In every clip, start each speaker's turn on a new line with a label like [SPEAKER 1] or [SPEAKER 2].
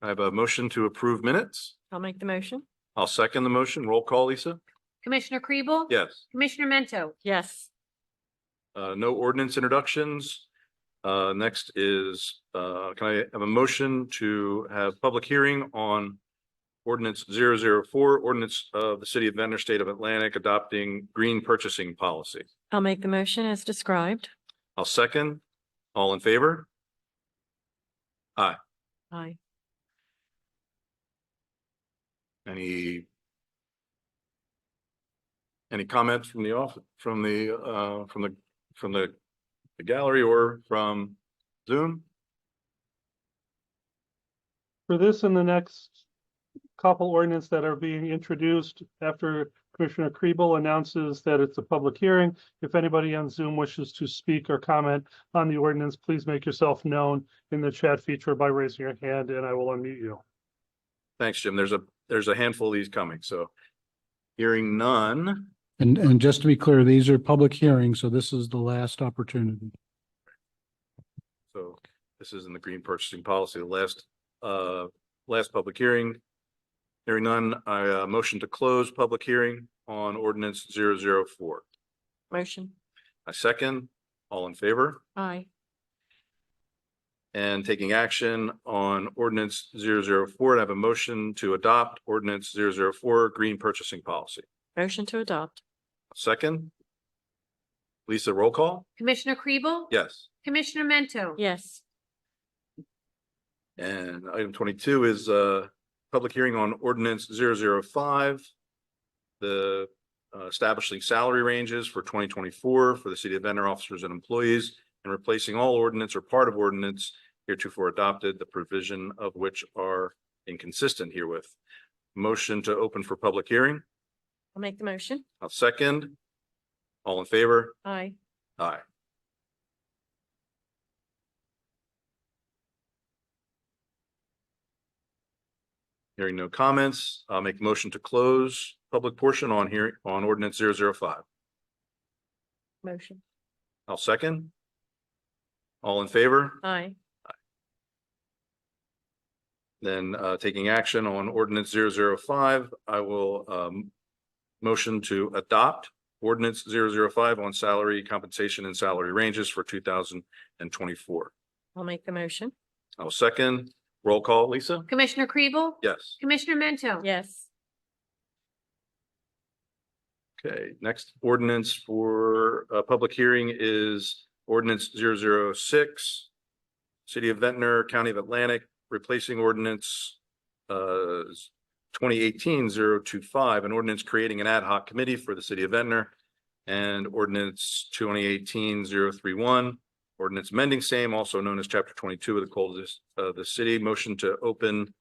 [SPEAKER 1] I have a motion to approve minutes.
[SPEAKER 2] I'll make the motion.
[SPEAKER 1] I'll second the motion. Roll call, Lisa?
[SPEAKER 3] Commissioner Kribel?
[SPEAKER 1] Yes.
[SPEAKER 3] Commissioner Mento?
[SPEAKER 2] Yes,
[SPEAKER 1] Uh, no ordinance introductions. Uh, next is, uh, can I have a motion to have public hearing on ordinance 004, ordinance of the city of Ventnor, state of Atlantic, adopting green purchasing policy?
[SPEAKER 2] I'll make the motion as described.
[SPEAKER 1] I'll second. All in favor?
[SPEAKER 2] Aye.
[SPEAKER 1] Any any comments from the off, from the, uh, from the, from the the gallery or from Zoom?
[SPEAKER 4] for this and the next couple ordinance that are being introduced after Commissioner Kribel announces that it's a public hearing. If anybody on Zoom wishes to speak or comment on the ordinance, please make yourself known in the chat feature by raising your hand and I will unmute you.
[SPEAKER 1] Thanks, Jim. There's a, there's a handful of these coming, so hearing none.
[SPEAKER 5] And, and just to be clear, these are public hearings, so this is the last opportunity.
[SPEAKER 1] So this is in the green purchasing policy, the last, uh, last public hearing. Hearing none, I, uh, motion to close public hearing on ordinance 004.
[SPEAKER 2] Motion.
[SPEAKER 1] I second. All in favor?
[SPEAKER 2] Aye.
[SPEAKER 1] and taking action on ordinance 004. I have a motion to adopt ordinance 004 green purchasing policy.
[SPEAKER 2] Motion to adopt.
[SPEAKER 1] Second. Lisa, roll call?
[SPEAKER 3] Commissioner Kribel?
[SPEAKER 1] Yes.
[SPEAKER 3] Commissioner Mento?
[SPEAKER 2] Yes,
[SPEAKER 1] And item twenty-two is a public hearing on ordinance 005, The uh, establishing salary ranges for twenty twenty-four for the city of Venter officers and employees and replacing all ordinance or part of ordinance heretofore adopted, the provision of which are inconsistent herewith. Motion to open for public hearing.
[SPEAKER 2] I'll make the motion.
[SPEAKER 1] I'll second. All in favor?
[SPEAKER 2] Aye.
[SPEAKER 1] Aye. Hearing no comments, I'll make motion to close public portion on here on ordinance 005. zero five.
[SPEAKER 2] Motion.
[SPEAKER 1] I'll second. All in favor,
[SPEAKER 2] Aye.
[SPEAKER 1] then uh taking action on ordinance 005. I will um motion to adopt ordinance 005 on salary compensation and salary ranges for two thousand and twenty-four.
[SPEAKER 2] I'll make the motion.
[SPEAKER 1] I'll second. Roll call, Lisa?
[SPEAKER 3] Commissioner Kribel?
[SPEAKER 1] Yes.
[SPEAKER 3] Commissioner Mento?
[SPEAKER 2] Yes,
[SPEAKER 1] Okay, next ordinance for a public hearing is ordinance 006, City of Ventnor, County of Atlantic, replacing ordinance uh 2018-025, an ordinance creating an ad hoc committee for the city of Ventnor and ordinance 2018-031, ordinance mending same, also known as chapter twenty-two of the code of this- of the city. Motion to open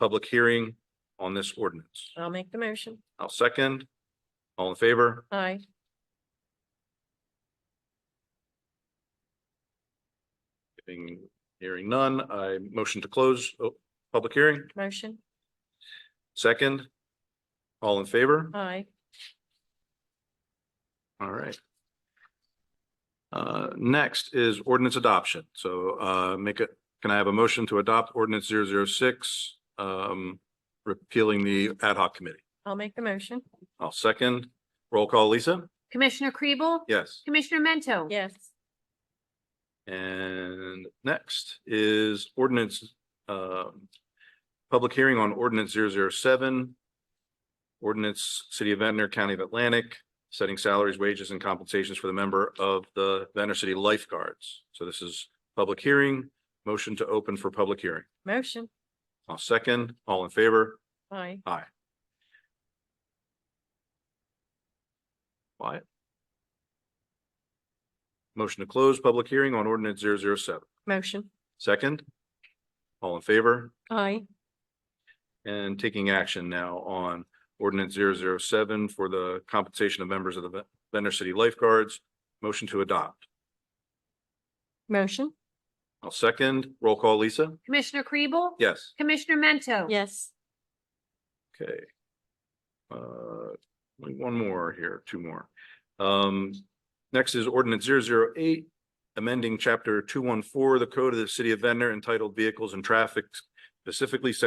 [SPEAKER 1] public hearing on this ordinance.
[SPEAKER 2] I'll make the motion.
[SPEAKER 1] I'll second. All in favor?
[SPEAKER 2] Aye.
[SPEAKER 1] Hearing, hearing none, I motion to close, oh, public hearing,
[SPEAKER 2] Motion.
[SPEAKER 1] second. All in favor?
[SPEAKER 2] Aye.
[SPEAKER 1] All right. Uh, next is ordinance adoption, so, uh, make it, can I have a motion to adopt ordinance zero zero six? Um, repealing the ad hoc committee,
[SPEAKER 2] I'll make the motion.
[SPEAKER 1] I'll second, roll call, Lisa?
[SPEAKER 3] Commissioner Kribel?
[SPEAKER 1] Yes.
[SPEAKER 3] Commissioner Mento?
[SPEAKER 2] Yes,
[SPEAKER 1] And next is ordinance, um, public hearing on ordinance 007, Ordinance, City of Ventnor, County of Atlantic, setting salaries, wages and compensations for the member of the Ventnor City Lifeguards. So this is public hearing, motion to open for public hearing.
[SPEAKER 2] motion.
[SPEAKER 1] I'll second, all in favor?
[SPEAKER 2] Aye.
[SPEAKER 1] Wyatt? Motion to close public hearing on ordinance 007.
[SPEAKER 2] Motion.
[SPEAKER 1] Second? All in favor?
[SPEAKER 2] Aye.
[SPEAKER 1] and taking action now on ordinance 007 for the compensation of members of the Ven- Venter City Lifeguards. Motion to adopt.
[SPEAKER 2] Motion.
[SPEAKER 1] I'll second. Roll call, Lisa?
[SPEAKER 3] Commissioner Kribel?
[SPEAKER 1] Yes.
[SPEAKER 3] Commissioner Mento?
[SPEAKER 2] Yes,
[SPEAKER 1] Okay. Uh, wait, one more here, two more. Um, next is ordinance 008, amending chapter two one four, the code of the city of Venter entitled Vehicles and Traffic, specifically section